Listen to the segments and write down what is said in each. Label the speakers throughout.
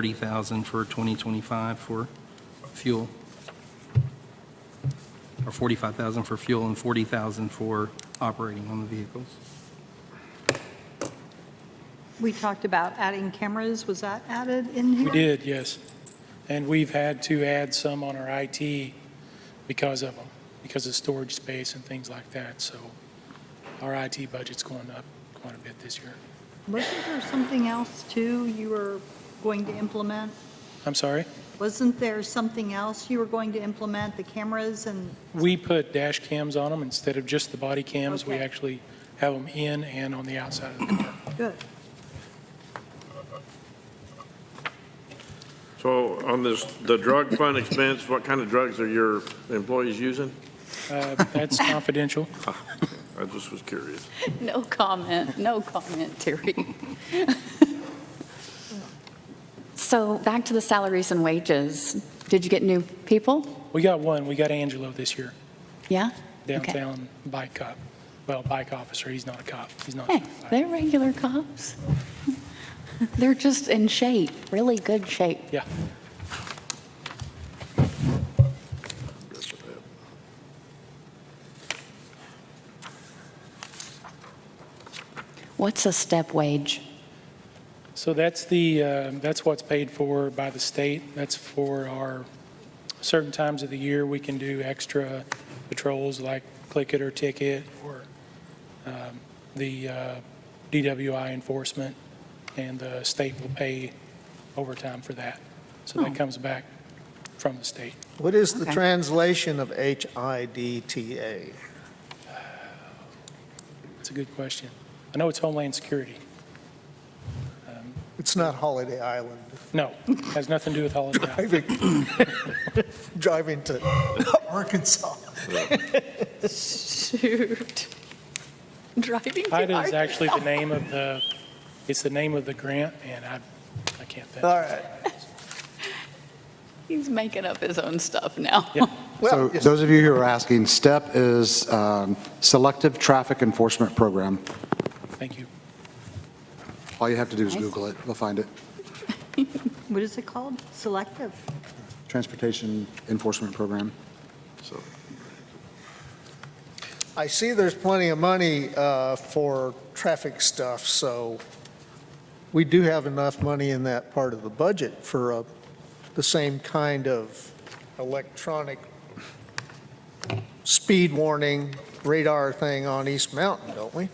Speaker 1: 40,000 for 2025 for fuel. Or 45,000 for fuel and 40,000 for operating on the vehicles.
Speaker 2: We talked about adding cameras. Was that added in here?
Speaker 3: We did, yes. And we've had to add some on our IT because of them, because of storage space and things like that. So our IT budget's going up quite a bit this year.
Speaker 2: Wasn't there something else, too, you were going to implement?
Speaker 3: I'm sorry?
Speaker 2: Wasn't there something else you were going to implement, the cameras and,
Speaker 3: We put dash cams on them instead of just the body cams. We
Speaker 2: Okay.
Speaker 3: actually have them in and on the outside of the car.
Speaker 2: good.
Speaker 4: So on this, the drug fund expense, what kind of drugs are your employees using?
Speaker 3: Uh, That's confidential.
Speaker 4: I just was curious.
Speaker 5: No comment, no comment, Terry. So back to the salaries and wages. Did you get new people?
Speaker 3: We got one, we got Angelo this year,
Speaker 5: Yeah? Okay.
Speaker 3: downtown bike cop. Well, bike officer, he's not a cop, he's not.
Speaker 5: Hey,
Speaker 3: certified.
Speaker 5: they're regular cops. They're just in shape, really good shape.
Speaker 3: Yeah.
Speaker 5: What's a step wage?
Speaker 3: So that's the, uh, that's what's paid for by the state. That's for our, certain times of the year, we can do extra patrols like click it or ticket or um, the uh, DWI enforcement, and the state will pay overtime for that. So that comes back from the state.
Speaker 6: What is the
Speaker 5: Okay.
Speaker 6: translation of HIDTA?
Speaker 3: It's a good question. I know it's Homeland Security.
Speaker 6: It's not Holiday Island.
Speaker 3: No, has nothing to do with Holiday Island.
Speaker 6: Driving to Arkansas.
Speaker 5: Shoot. Driving
Speaker 3: HIDA is actually the name of the, it's the name of the grant, and I, I can't think.
Speaker 6: All right.
Speaker 5: He's making up his own stuff now.
Speaker 3: Yeah.
Speaker 7: So
Speaker 6: Well, yes.
Speaker 7: those of you who are asking, STEP is um, Selective Traffic Enforcement Program.
Speaker 3: Thank you.
Speaker 7: All you have to do is
Speaker 5: Nice.
Speaker 7: Google it, you'll find it.
Speaker 2: What is it called? Selective?
Speaker 7: Transportation Enforcement Program.
Speaker 4: So
Speaker 6: I see there's plenty of money uh, for traffic stuff, so we do have enough money in that part of the budget for uh, the same kind of electronic speed warning radar thing on East Mountain, don't we?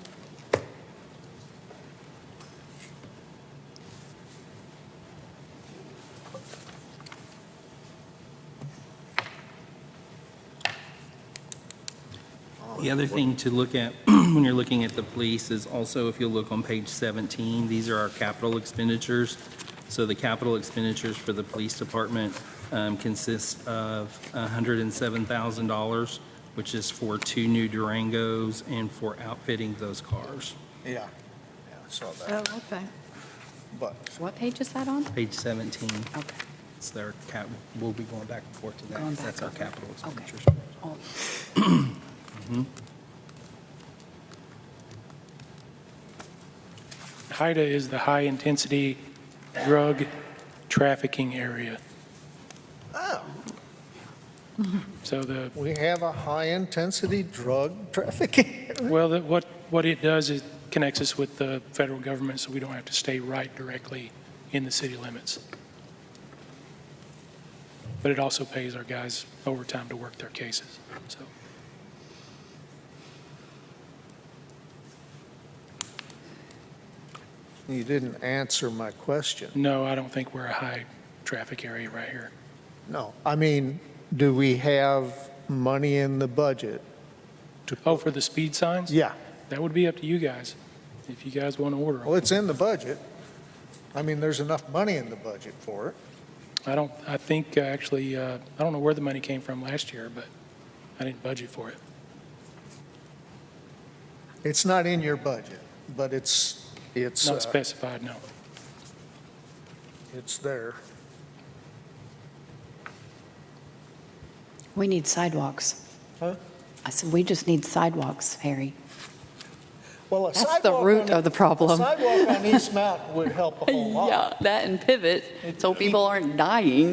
Speaker 1: The other thing to look at when you're looking at the police is also, if you look on page 17, these are our capital expenditures. So the capital expenditures for the police department um, consists of $107,000, which is for two new Durangos and for outfitting those cars.
Speaker 6: Yeah. Yeah, I saw
Speaker 2: Oh,
Speaker 6: that.
Speaker 2: okay.
Speaker 6: But
Speaker 5: What page is that on?
Speaker 1: Page 17,
Speaker 5: Okay.
Speaker 1: it's their cap, we'll be going back and forth to that.
Speaker 5: Going
Speaker 1: 'cause
Speaker 5: back
Speaker 1: That's our
Speaker 5: over.
Speaker 1: capital
Speaker 5: Okay.
Speaker 1: expenditures.
Speaker 5: Oh,
Speaker 3: HIDA is the High Intensity Drug Trafficking Area.
Speaker 6: oh.
Speaker 3: So the,
Speaker 6: we have a high-intensity drug trafficking.
Speaker 3: well, the- what, what it does is connects us with the federal government, so we don't have to stay right directly in the city limits. But it also pays our guys overtime to work their cases, so.
Speaker 6: You didn't answer my question.
Speaker 3: No, I don't think we're a high traffic area right here.
Speaker 6: No, I mean, do we have money in the budget?
Speaker 3: Oh, for the speed signs?
Speaker 6: Yeah,
Speaker 3: That would be up to you guys, if you guys want to order 'em.
Speaker 6: well, it's in the budget. I mean, there's enough money in the budget for it.
Speaker 3: I don't, I think, uh, actually, uh, I don't know where the money came from last year, but I didn't budget for it.
Speaker 6: It's not in your budget, but it's, it's,
Speaker 3: Not
Speaker 6: uh,
Speaker 3: specified, no.
Speaker 6: it's there.
Speaker 5: We need sidewalks.
Speaker 6: Huh?
Speaker 5: I said, we just need sidewalks, Harry.
Speaker 6: Well, a
Speaker 5: That's the
Speaker 6: sidewalk
Speaker 5: root
Speaker 6: on-
Speaker 5: of the problem.
Speaker 6: A sidewalk on East Mountain would help a whole lot.
Speaker 5: Yeah, that and pivot, so people aren't dying.